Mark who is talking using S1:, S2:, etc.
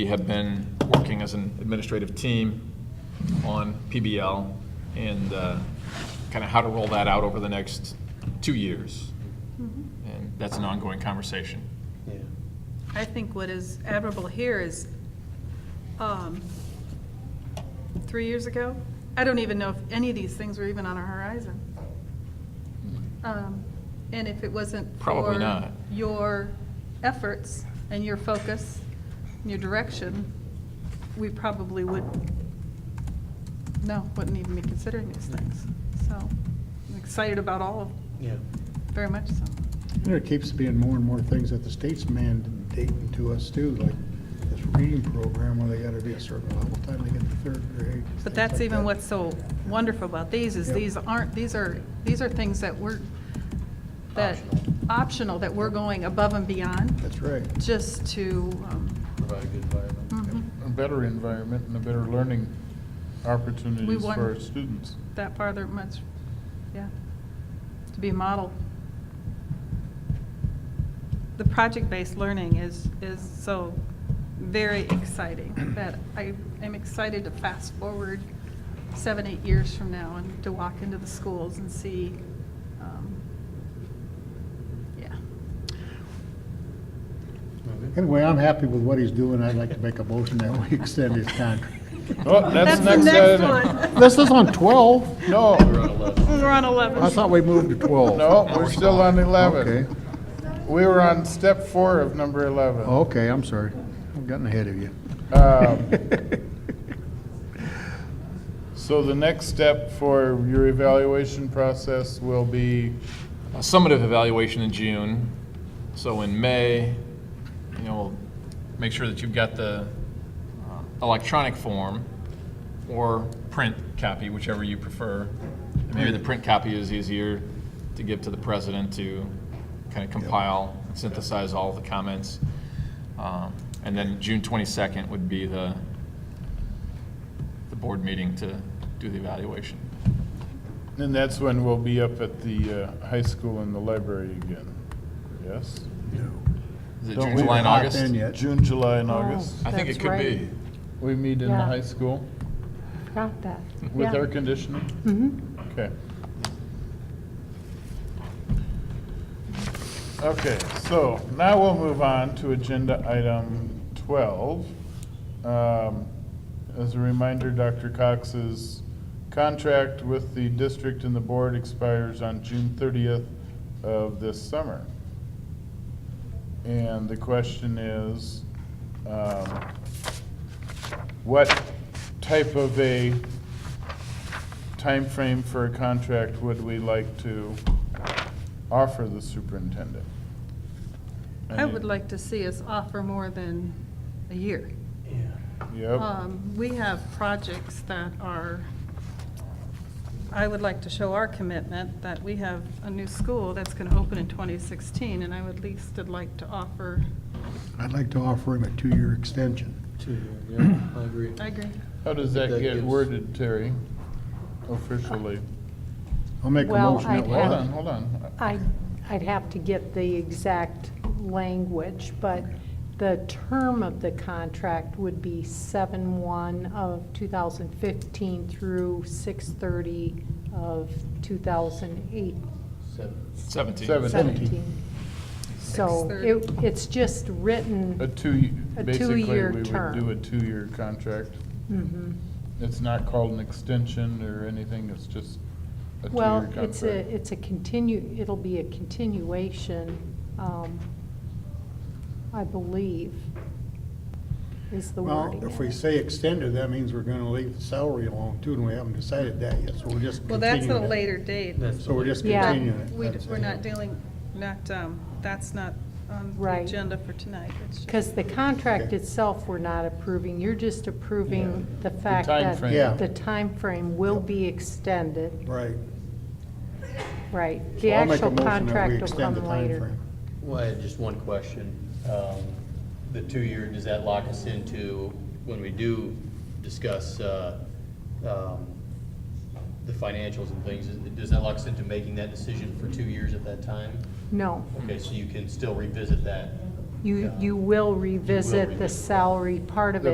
S1: We have been working as an administrative team on PBL and kind of how to roll that out over the next two years. And that's an ongoing conversation.
S2: Yeah,
S3: I think what is admirable here is, um, three years ago, I don't even know if any of these things were even on our horizon. Um, And if it wasn't
S1: Probably
S3: for
S1: not.
S3: your efforts and your focus, and your direction, we probably would, no, wouldn't even be considering these things. So, I'm excited about all of, them,
S2: yeah.
S3: very much so.
S4: There keeps being more and more things that the state's mandating to us too, like this reading program where they gotta be a certain level by the time they get to third grade.
S3: But
S4: things
S3: that's
S4: like
S3: even
S4: that.
S3: what's so wonderful about these, is
S4: Yep.
S3: these aren't, these are, these are things that we're, that, optional, that we're going above and beyond,
S4: That's right.
S3: just to, um,
S5: provide a good environment,
S3: mhm,
S5: a better environment and a better learning opportunities
S3: want-
S5: for our students.
S3: that farther much, yeah, to be a model. The project-based learning is, is so very exciting, that I am excited to fast forward seven, eight years from now and to walk into the schools and see, um, yeah.
S4: Anyway, I'm happy with what he's doing. I'd like to make a motion that we extend his contract.
S5: Oh, that's
S3: the
S5: next
S3: next
S5: item.
S3: one.
S4: This is on twelve.
S5: No,
S3: We're on
S4: I
S3: 11.
S4: thought we moved to twelve.
S5: no, we're still on
S4: Oh. Okay, Oh.
S5: 11. We were on step four of number 11.
S4: okay, I'm sorry. I've gotten ahead of you.
S5: Um, So the next step for your evaluation process will be,
S1: A summative evaluation in June, so in May, you know, make sure that you've got the uh, electronic form or print copy, whichever you prefer. And Maybe the print copy is easier to give to the president to kind of compile and synthesize all the comments. Um, And then June 22nd would be the, the board meeting to do the evaluation.
S5: and that's when we'll be up at the uh, high school in the library again, yes?
S1: Is it
S5: Don't
S1: June,
S5: we-
S1: July, and
S4: Not
S1: August?
S4: then yet.
S5: June, July, and August.
S1: I think it
S6: That's
S1: could
S6: right.
S1: be.
S5: We meet in the
S6: Yeah.
S5: high school
S6: Got that.
S5: with
S6: Yeah.
S5: air conditioning?
S6: Mhm.
S5: Okay. Okay, so now we'll move on to agenda item 12. Um, As a reminder, Dr. Cox's contract with the district and the board expires on June 30th of this summer. And the question is, um, what type of a time frame for a contract would we like to offer the superintendent?
S3: I would like to see us offer more than a year.
S5: Yep,
S3: Um, We have projects that are, I would like to show our commitment that we have a new school that's going to open in 2016, and I would at least would like to offer,
S4: I'd like to offer him a two-year extension.
S2: Two, yeah, I agree.
S3: I agree.
S5: how does that
S2: That
S5: get
S2: gives-
S5: worded, Terry, officially?
S4: I'll make a
S6: Well,
S4: motion that
S6: I'd
S4: we.
S6: have-
S5: Hold on, hold on.
S6: I'd, I'd have to get the exact language, but the term of the contract would be 7/1 of 2015 through 6/30 of 2017.
S1: 17.
S5: Seven.
S6: So
S3: 6/30.
S6: it, it's just
S5: A
S6: written,
S5: two,
S6: A
S5: basically, we
S6: two-year
S5: would
S6: term.
S5: do a two-year contract.
S6: mhm.
S5: It's not called an extension or anything, it's just a two-year
S6: well,
S5: contract.
S6: it's a, it's a continue, it'll be a continuation, um, I believe, is the
S4: Well,
S6: wording.
S4: if
S6: in
S4: we
S6: it.
S4: say extended, that means we're gonna leave the salary alone too, and we haven't decided that yet, so we're just
S3: Well, that's at a
S4: continuing it.
S3: later date.
S2: That's-
S4: So we're just
S6: Yeah.
S4: continuing it.
S3: We-
S4: That's-
S3: We're not dealing, not, um, that's not on the
S6: Right.
S3: agenda for tonight. It's just-
S6: Because the contract
S4: Okay.
S6: itself, we're not approving, you're just approving the fact that
S5: timeframe.
S4: Yeah.
S6: the timeframe will be extended,
S4: Right.
S6: right? The
S4: So I'll make a
S6: actual
S4: motion that we
S6: contract will
S4: extend the
S6: come later.
S4: timeframe.
S2: Well, I had just one question. Um, The two-year, does that lock us into, when we do discuss uh, um, the financials and things, is- does that lock us into making that decision for two years at that time?
S6: No,
S2: Okay, so you can still revisit that
S6: You, you will revisit the salary part of it.